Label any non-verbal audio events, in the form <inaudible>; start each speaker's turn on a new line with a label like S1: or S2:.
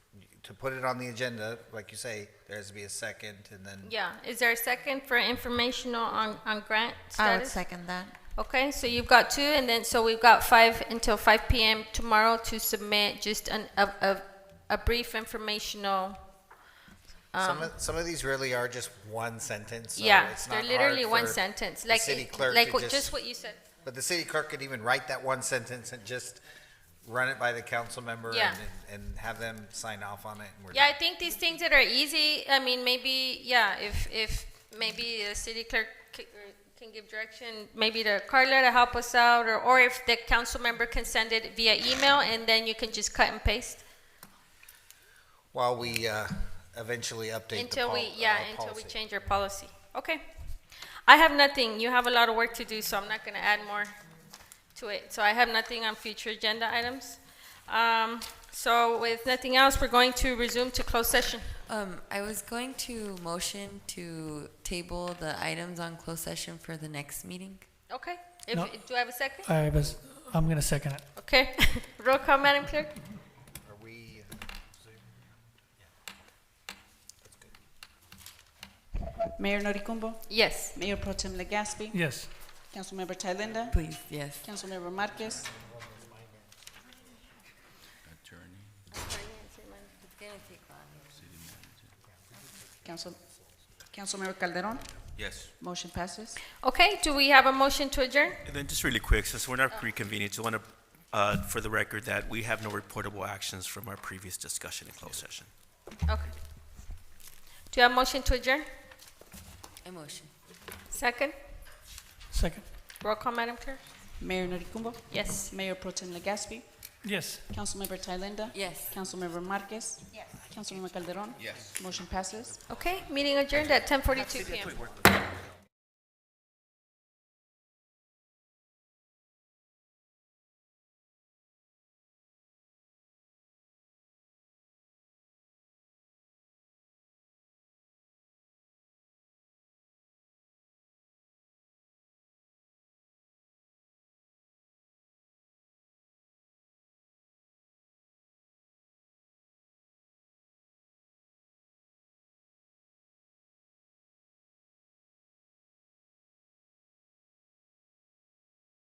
S1: to put it on the agenda, like you say, there has to be a second and then.
S2: Yeah, is there a second for informational on, on grant
S3: I would
S2: status?
S3: second that.
S2: Okay, so you've got two, and then, so we've got five until five PM tomorrow to submit just an, a, a, a brief informational.
S1: Some of, some of these really are just one sentence, so
S2: Um, Yeah,
S1: it's
S2: they're
S1: not
S2: literally
S1: hard
S2: one
S1: for-
S2: sentence,
S1: the
S2: like,
S1: city clerk
S2: like
S1: to
S2: what-
S1: just-
S2: just what you said.
S1: But the city clerk could even write that one sentence and just run it by the council member
S2: Yeah.
S1: and, and have them sign off on it and we're
S2: Yeah,
S1: done.
S2: I think these things that are easy, I mean, maybe, yeah, if, if maybe the city clerk c- or can give direction, maybe to Carla to help us out, or, or if the council member can send it via email, and then you can just cut and paste.
S1: While we, uh, eventually update the
S2: Until
S1: pol-
S2: we, yeah,
S1: uh,
S2: until we
S1: policy.
S2: change our policy. Okay. I have nothing. You have a lot of work to do, so I'm not gonna add more to it. So I have nothing on future agenda items. Um, so with nothing else, we're going to resume to closed session.
S3: Um, I was going to motion to table the items on closed session for the next meeting.
S2: Okay? If,
S4: No.
S2: do I have a second?
S4: I was, I'm gonna second it.
S2: <laughs> Okay. Roll call, Madam Clerk?
S1: Are we,
S5: Mayor Noricumbo,
S2: Yes.
S5: Mayor Pro Tem Legaspi,
S4: Yes.
S5: Councilmember Thalinda,
S3: Please, yes.
S5: Councilmember Marquez, Council, Councilmember Calderon,
S6: Yes.
S5: motion passes.
S2: Okay, do we have a motion to adjourn?
S6: And then just really quick, since we're not reconvening, just want to, for the record, that we have no reportable actions from our previous discussion in closed session.
S2: Okay. Do you have a motion to adjourn?
S3: A motion.
S2: Second?
S4: Second?
S2: Roll call, Madam Clerk?
S5: Mayor Noricumbo,
S2: Yes.
S5: Mayor Pro Tem Legaspi,
S4: Yes.
S5: Councilmember Thalinda.
S3: Yes.
S5: Councilmember Marquez. Yes. Councilmember Calderon. Yes. Motion passes.
S2: Okay, meeting adjourned at ten forty-two PM.